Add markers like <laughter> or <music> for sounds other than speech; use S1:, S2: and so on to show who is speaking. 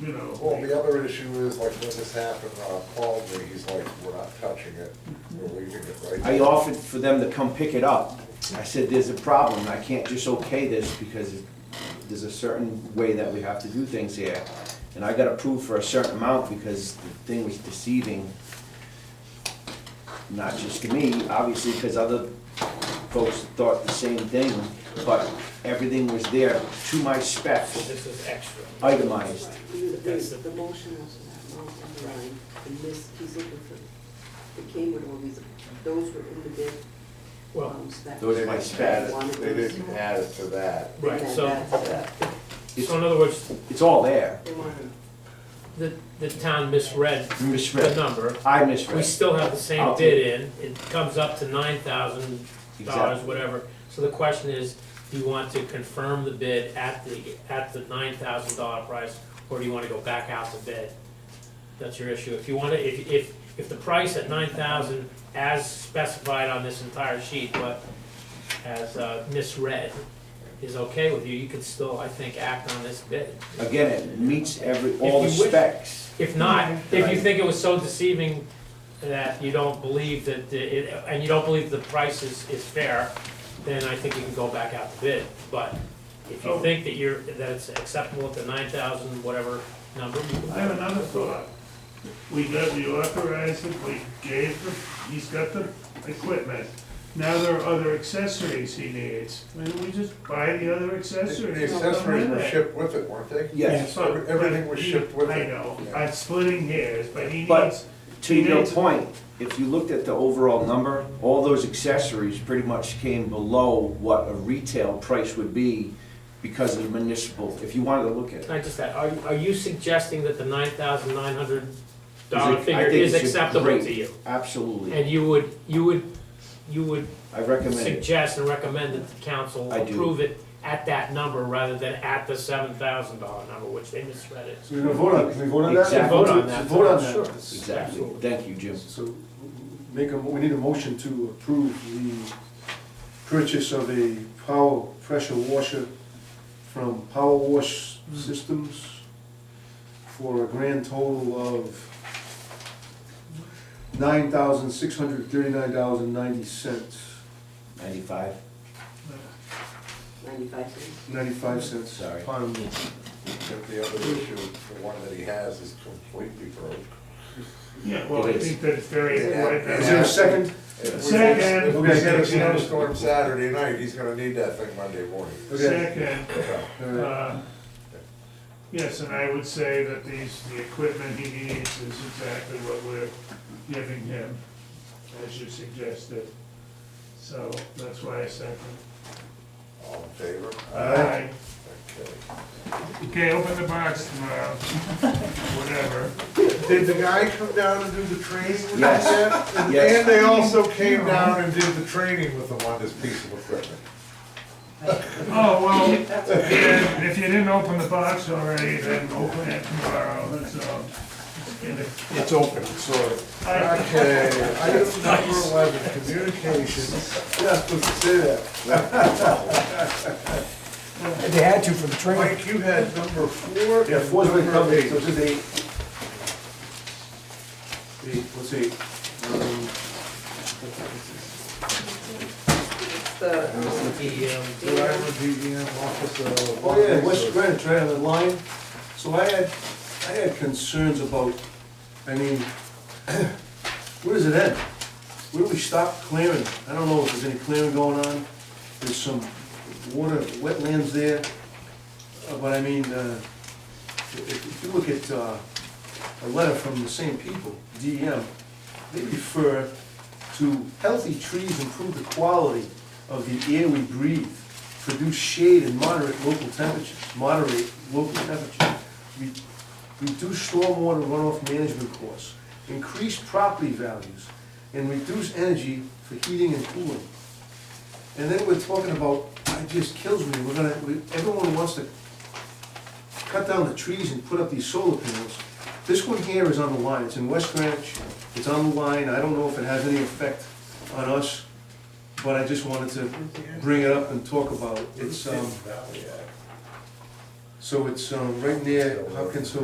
S1: you know.
S2: Well, the other issue is, like, when this happened, Rob called me, he's like, we're not touching it, we're leaving it right
S3: I
S2: there."
S3: offered for them to come pick it up. I said, there's a problem, I can't just okay this because there's a certain way that we have to do things here. And I got approved for a certain amount because the thing was deceiving, not just to me, obviously, because other folks thought the same thing, but everything was there to my specs,
S1: This is extra.
S3: itemized.
S4: You
S1: That's
S4: the,
S1: the-
S4: the motion was not on the line, and this, he's looking for, it came with all these, those were in the bid.
S1: Well,
S4: um, so that-
S3: Those are my specs.
S4: One of
S2: They
S4: those.
S2: didn't add it to that.
S1: right,
S4: And
S1: so,
S4: that's that.
S1: so in other words,
S3: It's all there.
S4: They wanted-
S1: the, the town misread
S3: You
S1: the
S3: Misread.
S1: number.
S3: I
S1: We
S3: misread.
S1: still have the same
S3: I'll-
S1: bid in, it comes up to nine thousand dollars,
S3: Exactly.
S1: whatever. So the question is, do you want to confirm the bid at the, at the nine thousand dollar price, or do you wanna go back out to bid? That's your issue. If you wanna, if, if, if the price at nine thousand as specified on this entire sheet, but as uh, misread, is okay with you, you could still, I think, act on this bid.
S3: Again, it meets every, all the
S1: If you wish-
S3: specs.
S1: If not, if you
S3: Right.
S1: think it was so deceiving that you don't believe that it, and you don't believe the price is, is fair, then I think you can go back out to bid. But if you think that you're, that it's acceptable at the nine thousand, whatever number, you can.
S5: I have another thought. We got, we authorized it, we gave him, he's got the equipment. Now there are other accessories he needs. Why don't we just buy the other accessories?
S2: The accessories were
S5: Yeah.
S2: shipped with it, weren't they?
S3: Yes.
S5: So-
S2: Everything was shipped with
S5: I
S2: it.
S5: know, I'm splitting hairs, but he
S3: But-
S5: needs,
S3: To your point, if you looked at the overall number, all those accessories pretty much came below what a retail price would be because of municipal, if you wanted to look at it.
S1: Not just that, are, are you suggesting that the nine thousand nine hundred
S3: I
S1: dollar
S3: think
S1: figure is
S3: it's a
S1: acceptable
S3: great-
S1: to you?
S3: Absolutely.
S1: And you would, you would, you would
S3: I recommend it.
S1: suggest and recommend that the council
S3: I do.
S1: approve it at that number rather than at the seven thousand dollar number, which they misread it.
S6: So you're gonna vote on, can we vote on that?
S3: Exactly.
S1: Vote on that.
S6: Vote on that.
S1: Sure.
S3: Exactly.
S1: Absolutely.
S3: Thank you, Jim.
S6: So, make a, mo- we need a motion to approve the purchase of a power pressure washer from Power Wash Systems for a grand total of nine thousand six hundred thirty-nine dollars and ninety cents,
S3: Ninety-five,
S4: Ninety-five cents.
S6: ninety-five cents.
S3: Sorry.
S6: Pardon me.
S2: But the other issue, the one that he has is completely broke.
S5: yeah, well, I
S3: It is.
S5: think that it's very
S2: Yeah.
S6: Is
S5: important.
S6: there a second?
S2: If we-
S5: Second.
S2: If we get
S5: Okay.
S2: a snowstorm Saturday night, he's gonna need that thing Monday morning.
S6: Okay.
S5: Second,
S2: So,
S6: All right.
S5: uh, yes, and I would say that these, the equipment he needs is exactly what we're giving him, as you suggested. So that's why I second.
S2: All in favor?
S5: Aye.
S2: Okay.
S5: Okay, open the box tomorrow, <laughs> whatever.
S2: Did the guy come down and do the training with them?
S3: Yes.
S2: And-
S3: Yes.
S2: And they also came down and did the training with them on this piece of equipment.
S5: Oh, well, yeah, if you didn't open the box already, then open it tomorrow, that's all.
S6: It's open, sorry.
S5: I-
S2: Okay, item number eleven, communications.
S6: Yeah, supposed to say that.
S7: They had to for the training.
S2: Mike, you had number four.
S6: Yeah,
S2: and
S6: four's been
S2: number
S6: covered,
S2: eight.
S6: so it's just eight. Eight, what's eight? Um,
S4: It's the,
S1: The, um,
S2: Driver, E DEM, officer.
S6: Oh, yeah, West Greenwich, right on the line. So I had, I had concerns about, I mean, <coughs> where does it end? Where do we stop clearing? I don't know if there's any clearing going on. There's some water, wetlands there. Uh, But I mean, uh, if if you look at uh, a letter from the same people, DEM, they refer to healthy trees improve the quality of the air we breathe, produce shade and moderate local temperatures, moderate local temperatures, re- reduce stormwater runoff management costs, increase property values, and reduce energy for heating and cooling. And then we're talking about, it just kills me, we're gonna, we- everyone wants to cut down the trees and put up these solar panels. This one here is on the line, it's in West Greenwich, it's on the line, I don't know if it has any effect on us, but I just wanted to bring it up and talk about it. It's, um, so it's, um, right near Hopkins Hill